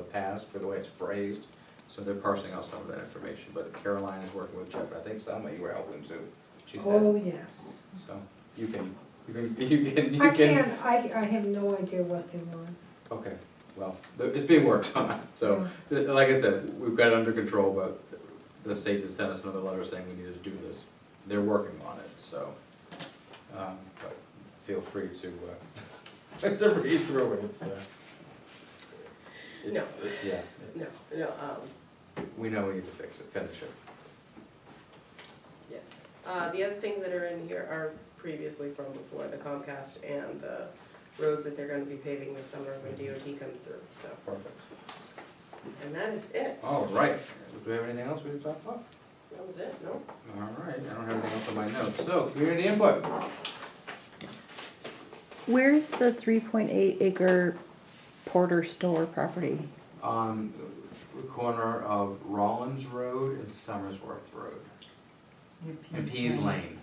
past for the way it's phrased, so they're parsing out some of that information, but Caroline is working with Jeff, and I think Selma, you were helping too, she said, Oh, yes. so, you can, you can, you can, I you can. can, I, I have no idea what they want. Okay, well, th- it's being worked on, so, th- like I said, we've got it under control, but the state did send us another letter saying we need to do this. They're working on it, so, um, but feel free to, uh, to read through it, it's, uh. No. it's- it- Yeah, No, it's- no, um, we know we need to fix it, finish it. yes. Uh, the other things that are in here are previously from before, the Comcast and the roads that they're gonna be paving this summer when DOT comes through, so, Perfect. and that is it. All right, do we have anything else we need to talk about? That was it, no? All right, I don't have anything else on my notes, so, community input. Where is the three point eight acre Porter store property? on the corner of Rollins Road and Summersworth Road. And Pease Lane.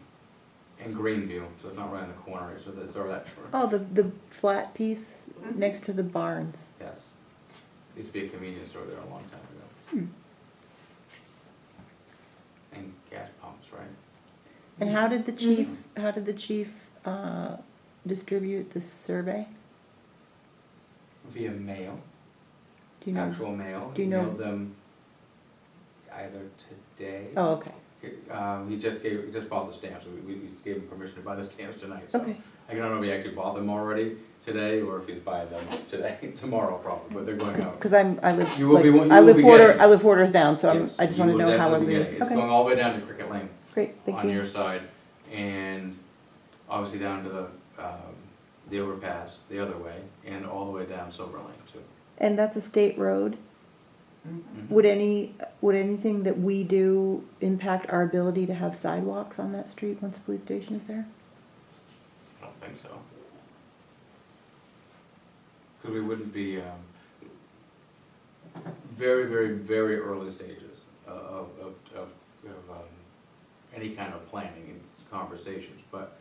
And Greenview, so it's not right on the corner, it's over that, it's over that corner, Oh, the, the flat piece next to the barns. yes. Used to be a convenience store there a long time ago. Hmm. And gas pumps, right? And how did the chief, how did the chief, uh, distribute this survey? Via mail, Do you know? actual mail. do you know- Mailed them either today. Oh, okay, Um, he just gave, he just bought the stamps, we, we we gave him permission to buy the stamps tonight, so. okay. I don't know if he actually bought them already today, or if he's buying them today, tomorrow probably, but they're going out. Cause I'm, I live, You will be- like, you I will live be four, getting door- it. I live four doors down, so I'm, Yes, I just you wanna will know how I'm definitely be doing. getting it. It's going Okay, all the way down to Cricket Lane great, thank on your you. side, and obviously down to the, um, the overpass the other way, and all the way down Silver Lane too. And that's a state road? Mhm. Would any, would anything that we do impact our ability to have sidewalks on that street once the police station is there? I don't think so. Because we wouldn't be, um, very, very, very early stages uh, of, of, of, of, um, any kind of planning and conversations, but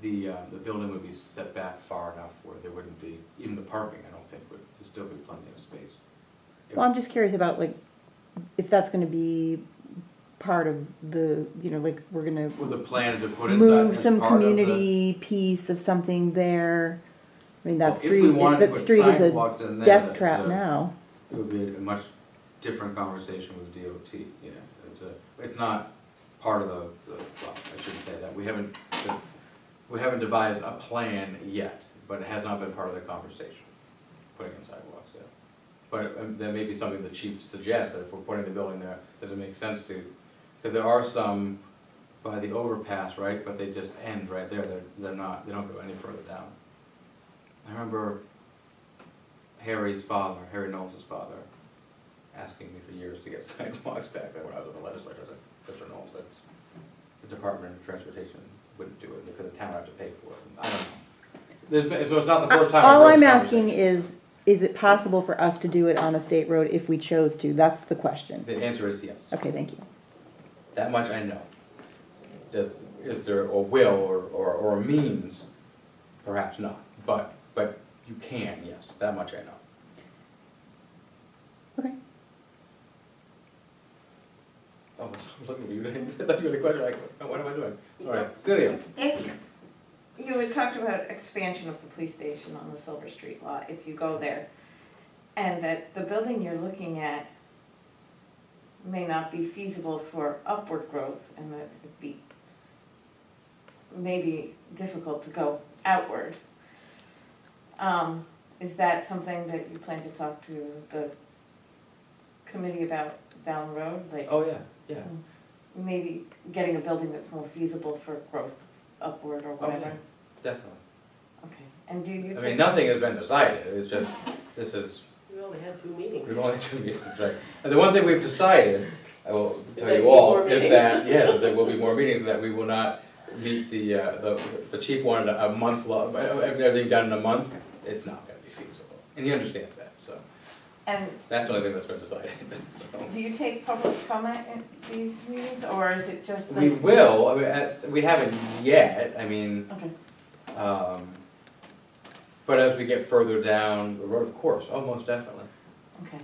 the, uh, the building would be set back far enough where there wouldn't be, even the parking, I don't think, would, there'd still be plenty of space. Well, I'm just curious about like, if that's gonna be part of the, you know, like, we're gonna With the plan to put inside. move as some part of the- community piece of something there. I mean, Well, that if we street, wanted to that put street is a sidewalks in there, death that's trap a- now. It would be a much different conversation with DOT, yeah, it's a, it's not part of the, the, well, I shouldn't say that, we haven't, we haven't devised a plan yet, but it has not been part of the conversation, putting in sidewalks there. But um, that may be something the chief suggests, that if we're putting the building there, does it make sense to, because there are some by the overpass, right, but they just end right there, they're, they're not, they don't go any further down. I remember Harry's father, Harry Knowles' father, asking me for years to get sidewalks back then when I was in the legislature. I said, Mr. Knowles, that's, the Department of Transportation wouldn't do it because the town would have to pay for it. I don't know. There's been, so it's not the first time. I've All heard I'm this asking conversation. is, is it possible for us to do it on a state road if we chose to? That's the question. The answer is yes. Okay, thank you. That much I know. Does, is there a will or, or, or a means? Perhaps not, but, but you can, yes, that much I know. Okay. Oh, look at you, I thought you had a question, like, oh, what am I doing? Sorry, Celia, If, you had talked about expansion of the police station on the Silver Street lot, if you go there, and that the building you're looking at may not be feasible for upward growth, and that it'd be maybe difficult to go outward. Um, is that something that you plan to talk to the committee about down the road, like? oh, yeah, yeah. maybe getting a building that's more feasible for growth upward or Oh, yeah, whatever. definitely. Okay, and do you I take? mean, nothing has been decided, it's just, this is, We only had two meetings. we've only two meetings, right? And the one thing we've decided, I will tell there you will be all, more is meetings. that, yeah, that there will be more meetings, that we will not meet the, uh, the, the chief wanted a a month, lo- everything done in a month, it's not gonna be feasible. And he understands that, so, And that's the only thing that's been decided. do you take public comment at these meetings, or is it just We the? will, I mean, uh, we haven't yet, I mean, Okay, um, but as we get further down the road, of course, oh, most definitely. okay.